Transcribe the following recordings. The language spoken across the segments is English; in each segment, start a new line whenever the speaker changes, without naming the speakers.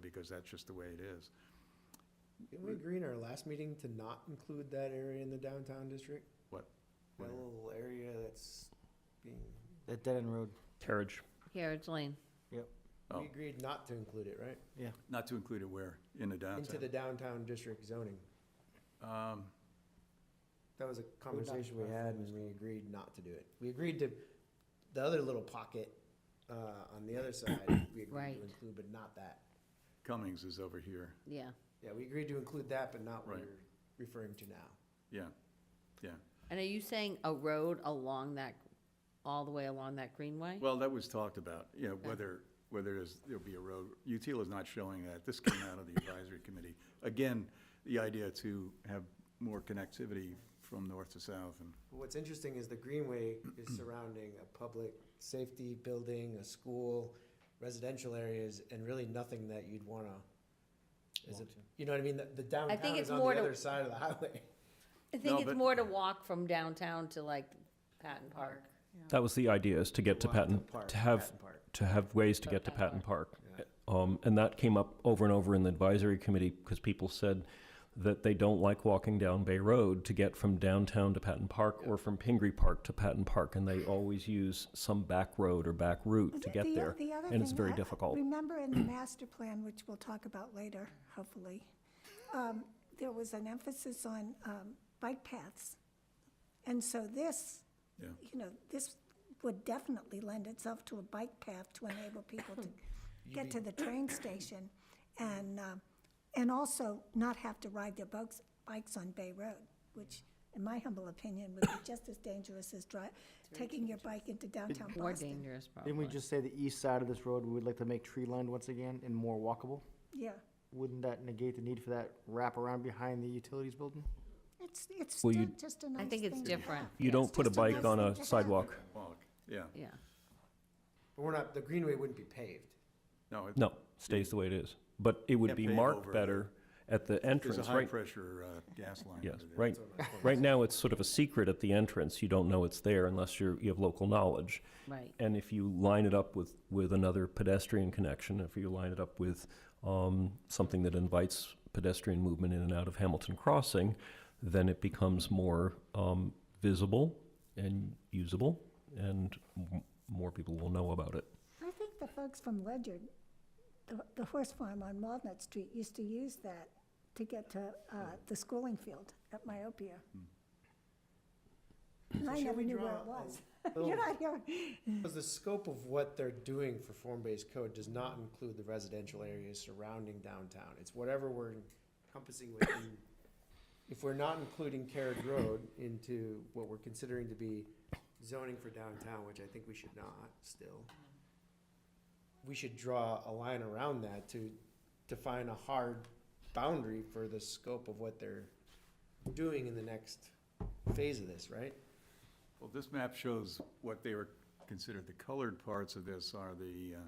because that's just the way it is.
Didn't we agree in our last meeting to not include that area in the downtown district? That little area that's being,
That dead end road.
Carriage.
Carriage Lane.
Oh.
we agreed not to include it, right?
Not to include it where? In the
Into
downtown?
the downtown district zoning.
Um,
That was a conversation we
about
had
that.
and we agreed not to do it. We agreed to, the other little pocket, uh, on the other side, we agreed
Right.
to include, but not that.
Cummings is over here,
Yeah.
Yeah, we agreed to include that, but not what
Right.
you're referring to now.
yeah.
And are you saying a road along that, all the way along that greenway?
Well, that was talked about, you know, whether, whether there's, there'll be a road. UTIL is not showing that. This came out of the advisory committee. Again, the idea to have more connectivity from north to south and,
What's interesting is the greenway is surrounding a public safety building, a school, residential areas, and really nothing that you'd wanna. Is it, you know what I mean? The- The downtown
it's
is on
more
the
to-
other side of the highway.
I
No,
think it's
but-
more to walk from downtown to like Patton Park.
That was the idea, is to get to
Walk
Patton,
Park,
to have,
Patton Park.
to have ways to
To
get to
Patton
Patton Park.
Yeah.
Um, and that came up over and over in the advisory committee because people said that they don't like walking down Bay Road to get from downtown to Patton Park or from Pingree Park to Patton Park, and they always use some back road or back route
Is
to
it
get
the o-
there.
the other
and it's
thing,
very
I- I
difficult.
Remember in the master plan, which we'll talk about later, hopefully, um, there was an emphasis on um, bike paths. And so this,
Yeah.
you know, this would definitely lend itself to a bike path to enable people to get to the train station and, um, and also not have to ride their bikes, bikes on Bay Road, which in my humble opinion would be just as dangerous as dri, taking your bike into downtown
More
Boston.
dangerous, probably.
Didn't we just say the east side of this road, we would like to make tree lined once again and more walkable?
Yeah.
Wouldn't that negate the need for that wraparound behind the utilities building?
It's, it's
Well,
still
you-
just a nice
I think it's
thing to
different.
have.
You don't put a
just a nice
bike on
thing
a
to have.
sidewalk.
walk, yeah.
Yeah.
But we're not, the greenway wouldn't be paved.
No, it-
No, stays the way it is. But it would
Can't
be
pave
marked
over it.
better at the
there's a
entrance, right?
high-pressure uh, gas line.
Yes,
under there.
right. Right now, it's sort of a secret at the entrance. You don't know it's there unless you're, you have local knowledge.
Right.
And if you line it up with, with another pedestrian connection, if you line it up with um, something that invites pedestrian movement in and out of Hamilton Crossing, then it becomes more um, visible and usable, and m- more people will know about it.
I think the folks from Ledyard, the, the horse farm on Walnut Street, used to use that to get to, uh, the schooling field at Myopia. And I
should
never
Hmm. we
knew where
draw
it
a
was.
little-
You're not here.
Because the scope of what they're doing for form-based code does not include the residential areas surrounding downtown. It's whatever we're encompassing within. If we're not including Carriage Road into what we're considering to be zoning for downtown, which I think we should not still, we should draw a line around that to define a hard boundary for the scope of what they're doing in the next phase of this, right?
Well, this map shows what they were considered, the colored parts of this are the, uh,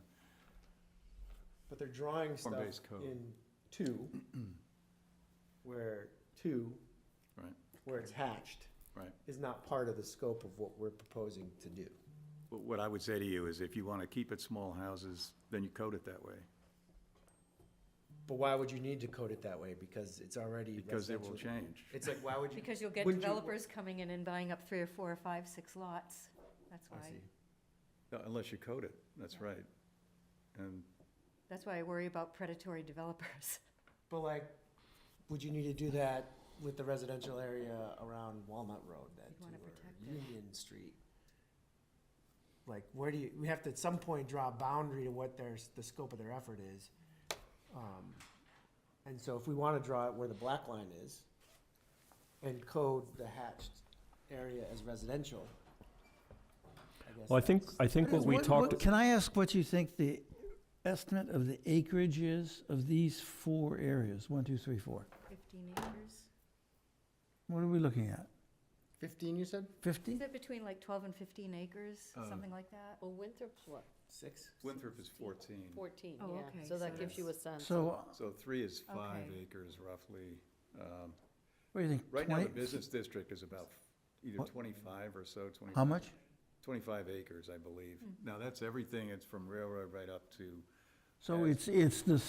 But they're drawing stuff
Form-based code.
in two, where two,
Right.
where it's hatched,
Right.
is not part of the scope of what we're proposing to do.
But what I would say to you is if you want to keep it small houses, then you code it that way.
But why would you need to code it that way? Because it's already
Because it will
residential.
change.
It's like, why would you?
Because you'll get
wouldn't you-
developers coming in and buying up three or four or five, six lots. That's
I
why,
see.
No, Unless you code it, that's right. And
that's why I worry about predatory developers.
But like, would you need to do that with the residential area around Walnut Road then
You'd wanna
too,
protect
or
it.
Union Street? Like, where do you, we have to at some point draw a boundary to what their, s- the scope of their effort is. Um, And so if we wanna draw it where the black line is and code the hatched area as residential, I guess.
Well, I think, I think what we
Uh, What-
talked.
what- Can I ask what you think the estimate of the acreage is of these four areas? One, two, three, four.
Fifteen acres.
What are we looking at?
Fifteen, you said?
Fifty?
Is it between like twelve and fifteen acres,
Uh,
something like that?
Well, Winthrop's what,
Six?
Winthrop is 14,
fourteen,
Oh,
yeah.
okay,
So that
so
gives you a sense.
So, uh,
so three is five
Okay.
acres roughly. Um,
what do you think?
Right now, the
20
business district is about either
What?
25 or so, 25.
How much?
25 acres, I believe. Now, that's everything, it's from railroad right up to
So it's, it's the